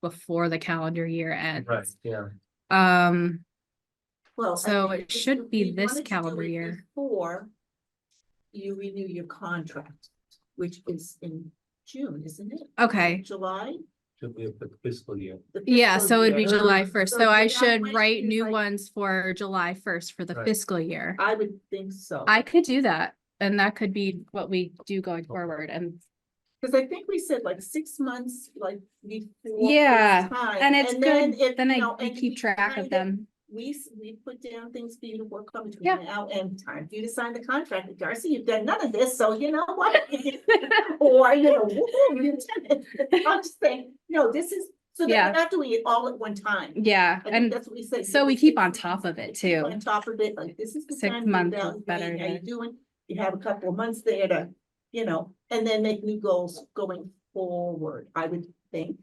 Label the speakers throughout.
Speaker 1: before the calendar year ends.
Speaker 2: Right, yeah.
Speaker 1: Um,
Speaker 3: Well. I
Speaker 1: So
Speaker 3: think
Speaker 1: it
Speaker 3: we-
Speaker 1: should be
Speaker 3: we
Speaker 1: this
Speaker 3: wanted to do
Speaker 1: calendar
Speaker 3: it
Speaker 1: year.
Speaker 3: Before you renew your contract, which is in June, isn't it?
Speaker 1: okay,
Speaker 3: July?
Speaker 2: Should be a fi- fiscal year.
Speaker 3: The
Speaker 1: yeah,
Speaker 3: fiscal
Speaker 1: so it'd be
Speaker 3: year.
Speaker 1: July first, so I
Speaker 3: that
Speaker 1: should
Speaker 3: might
Speaker 1: write
Speaker 3: be
Speaker 1: new
Speaker 3: like- Uh,
Speaker 1: ones for July first for the
Speaker 2: Right.
Speaker 1: fiscal year.
Speaker 3: I would think so.
Speaker 1: I could do that, and that could be what we do going forward, and,
Speaker 3: Cause I think we said like six months, like before.
Speaker 1: Yeah,
Speaker 3: time,
Speaker 1: and it's
Speaker 3: then
Speaker 1: good,
Speaker 3: if,
Speaker 1: then
Speaker 3: you
Speaker 1: I
Speaker 3: know,
Speaker 1: I
Speaker 3: and
Speaker 1: keep
Speaker 3: we
Speaker 1: track of
Speaker 3: kind of-
Speaker 1: them.
Speaker 3: We, s- we put down things for you to work on between
Speaker 1: Yeah.
Speaker 3: now and time. You to sign the contract with Darcy, you've done none of this, so you know what? Or, you know, woo-hoo, you did it. I'm just saying, no, this is, so
Speaker 1: Yeah.
Speaker 3: they're not doing it all at one time.
Speaker 1: Yeah,
Speaker 3: I think
Speaker 1: and
Speaker 3: that's what we said.
Speaker 1: so
Speaker 3: you
Speaker 1: we
Speaker 3: just
Speaker 1: keep
Speaker 3: keep
Speaker 1: on top of it too.
Speaker 3: On top of it, like this is the
Speaker 1: Six
Speaker 3: time. to
Speaker 1: months is
Speaker 3: evaluate
Speaker 1: better
Speaker 3: How you
Speaker 1: to-
Speaker 3: doing? You have a couple of months there to, you know, and then make new goals going forward, I would think.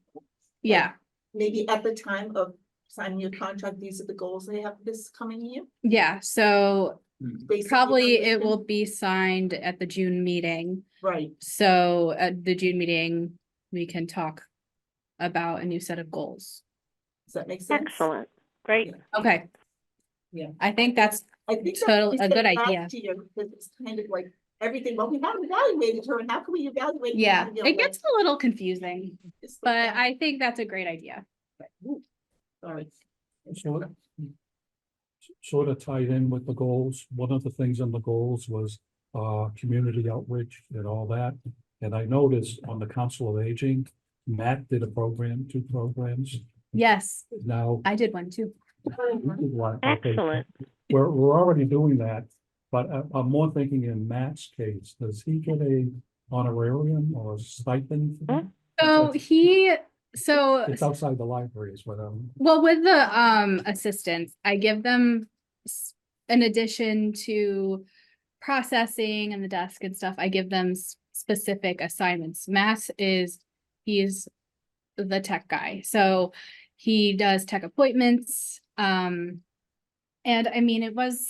Speaker 1: Yeah,
Speaker 3: Maybe at the time of signing your contract, these are the goals they have this coming year.
Speaker 1: yeah, so
Speaker 3: based on the
Speaker 1: probably it
Speaker 3: information.
Speaker 1: will be signed at the June meeting.
Speaker 3: Right,
Speaker 1: So at the June meeting, we can talk about a new set of goals.
Speaker 3: does that make sense?
Speaker 4: Excellent, great.
Speaker 1: Okay.
Speaker 3: Yeah.
Speaker 1: I think that's,
Speaker 3: I think that's
Speaker 1: Total-
Speaker 3: what we
Speaker 1: a
Speaker 3: said
Speaker 1: good
Speaker 3: last
Speaker 1: idea.
Speaker 3: year, Because it's kind of like everything, well, we haven't evaluated her, and how can we evaluate? her?
Speaker 1: yeah,
Speaker 3: You know,
Speaker 1: it
Speaker 3: like,
Speaker 1: gets a little confusing,
Speaker 3: it's like
Speaker 1: but
Speaker 3: that.
Speaker 1: I think that's a great idea.
Speaker 3: Sorry.
Speaker 5: Sort of. Sort of tied in with the goals. One of the things on the goals was uh community outreach and all that. And I noticed on the Council of Aging, Matt did a program, two programs.
Speaker 1: Yes,
Speaker 5: Now.
Speaker 1: I did one too.
Speaker 5: you did one, okay.
Speaker 4: Excellent.
Speaker 5: We're we're already doing that, but I- I'm more thinking in Matt's case, does he get a honorarium or stipend? for
Speaker 4: Mm-hmm.
Speaker 5: that?
Speaker 1: So he, so
Speaker 5: It's outside the library is what I'm.
Speaker 1: Well, with the um assistants, I give them s- in addition to processing and the desk and stuff, I give them s- specific assignments. Mass is, he's the tech guy, so he does tech appointments. Um, and I mean, it was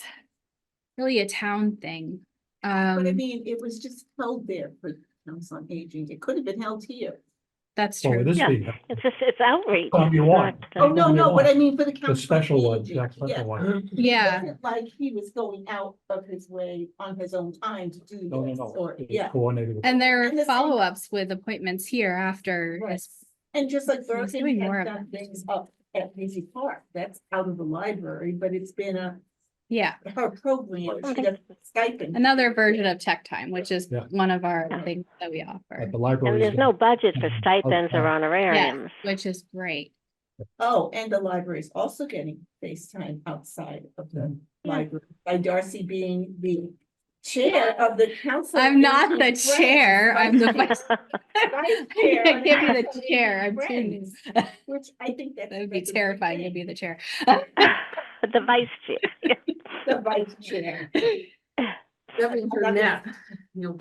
Speaker 1: really a town thing.
Speaker 3: But I
Speaker 1: Um,
Speaker 3: mean, it was just held there for Council on Aging. It could have been held here.
Speaker 1: that's
Speaker 5: Oh,
Speaker 1: true.
Speaker 5: it is
Speaker 4: Yeah.
Speaker 5: being-
Speaker 4: It's just, it's outreach.
Speaker 5: Oh, you
Speaker 4: it's
Speaker 5: want-
Speaker 4: not,
Speaker 3: Oh,
Speaker 4: uh,
Speaker 3: no, no, what I mean for the Council.
Speaker 5: The
Speaker 3: on
Speaker 5: special one,
Speaker 3: Aging,
Speaker 5: that
Speaker 3: yeah.
Speaker 5: special one.
Speaker 1: Yeah,
Speaker 3: It wasn't Like he was going out of his way on his own time to do this
Speaker 5: No, no, no.
Speaker 3: or,
Speaker 5: It's
Speaker 3: yeah.
Speaker 5: Coordinated. with-
Speaker 1: and there
Speaker 3: And
Speaker 1: are
Speaker 3: the same-
Speaker 1: follow-ups with appointments here after
Speaker 3: Right.
Speaker 1: this.
Speaker 3: And just like
Speaker 1: doing
Speaker 3: Burton
Speaker 1: more
Speaker 3: had
Speaker 1: of
Speaker 3: done
Speaker 1: that.
Speaker 3: things up at Daisy Park, that's out of the library, but it's been a,
Speaker 1: Yeah.
Speaker 3: her program,
Speaker 4: I
Speaker 3: she
Speaker 4: think
Speaker 3: got stipend.
Speaker 1: another version of tech time, which is
Speaker 5: Yeah.
Speaker 1: one of our
Speaker 4: Yeah.
Speaker 1: things that we offer,
Speaker 5: At the library.
Speaker 4: And there's no budget for
Speaker 5: Mhm.
Speaker 4: stipends or
Speaker 5: Oh, Okay.
Speaker 4: honorariums.
Speaker 1: which is great.
Speaker 3: Oh, and the library is also getting FaceTime outside of the
Speaker 1: Hmm.
Speaker 4: Yeah.
Speaker 3: library by Darcy being the chair of the council.
Speaker 1: I'm not the
Speaker 3: Friends,
Speaker 1: chair, I'm the
Speaker 3: vice-
Speaker 1: vice.
Speaker 3: vice chair
Speaker 1: I can't
Speaker 3: of
Speaker 1: be
Speaker 3: Council
Speaker 1: the
Speaker 3: of
Speaker 1: chair, I'm too,
Speaker 3: Friends, Which I think that's.
Speaker 1: that would be
Speaker 3: that's a good
Speaker 1: terrifying to
Speaker 3: thing.
Speaker 1: be the chair.
Speaker 4: The vice chair.
Speaker 3: The vice chair.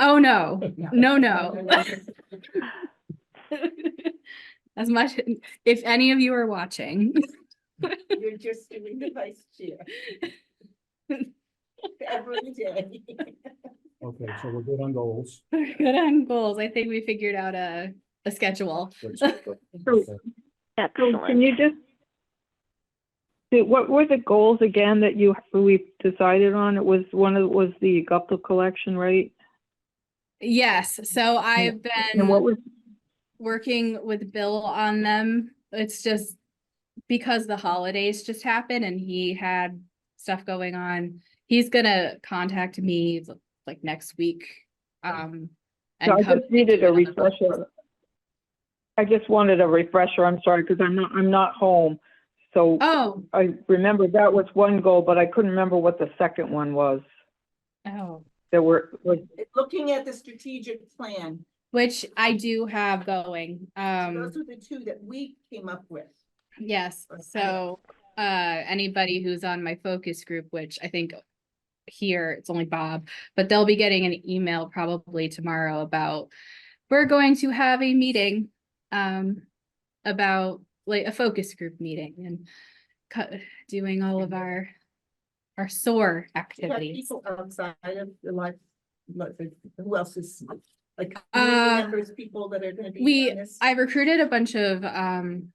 Speaker 1: Oh, no, no, no.
Speaker 3: That's
Speaker 1: As much, if any of you are watching,
Speaker 3: You're just doing the vice chair. Every day.
Speaker 5: Okay, so we're good on goals.
Speaker 1: we're good on goals. I think we figured out a, a schedule.
Speaker 5: Which-
Speaker 6: So- So Can
Speaker 4: Excellent.
Speaker 6: you just? So What were the goals again that you, we decided on? It was one of, was the Gupta collection, right?
Speaker 1: Yes, so I've
Speaker 6: And what
Speaker 1: been
Speaker 6: was,
Speaker 1: working with Bill on them. It's just because the holidays just happened and he had stuff going on. He's gonna contact me like next week. Um.
Speaker 6: so I
Speaker 1: and come
Speaker 6: just needed a
Speaker 1: to another-
Speaker 6: refresher. I just wanted a refresher, I'm sorry, because I'm not, I'm not home. So
Speaker 1: Oh,
Speaker 6: I remember that was one goal, but I couldn't remember what the second one was.
Speaker 1: oh,
Speaker 6: There were, was,
Speaker 3: Looking at the strategic plan,
Speaker 1: which I do have going. Um,
Speaker 3: those are the two that we came up with.
Speaker 1: yes, so, uh, anybody who's on my focus group, which I think here, it's only Bob, but they'll be getting an email probably tomorrow about, we're going to have a meeting, um, about like a focus group meeting and co- doing all of our, our SOAR
Speaker 3: Do you have
Speaker 1: activities.
Speaker 3: People outside of the life, like, who else is, like, community
Speaker 1: Uh,
Speaker 3: members, people that are gonna be.
Speaker 1: we-
Speaker 3: on this?
Speaker 1: I recruited a bunch of, um,